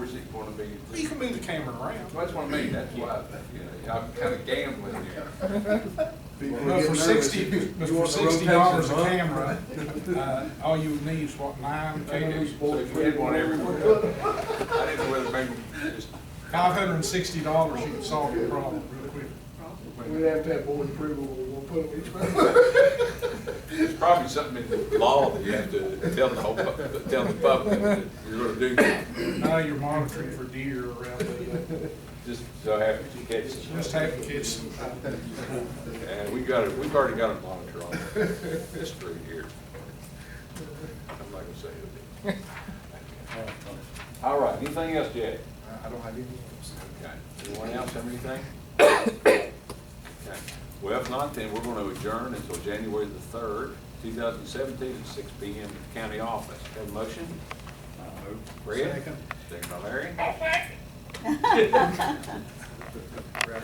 wanna be, Well, You can move the camera around. that's what I mean, that's why, you know, I'm kinda gambling here. People are But getting for nervous. sixty, You but for want the sixty dollars a rotation, camera, uh, all you would need is what, nine cameras? So if we had one everywhere, I didn't know whether maybe just. Five hundred and sixty dollars, you can solve your problem real quick. huh? We'd have to have board approval, we're gonna put it each one. There's probably something in the law that you have to tell the whole, pub- tell the public that you're gonna do, Now you're monitoring for deer around the, uh, just so happy to catch it. just having kids sometime. And we got it, we've already got a monitor on this through here. I'm not gonna say it. All right, anything else, Jack? I don't have any. Okay, anyone else have anything? Okay. Well, if not, then we're gonna adjourn until January the third, two thousand seventeen, at six P M. at the county office. Have a motion? Fred? Second. Second by Larry.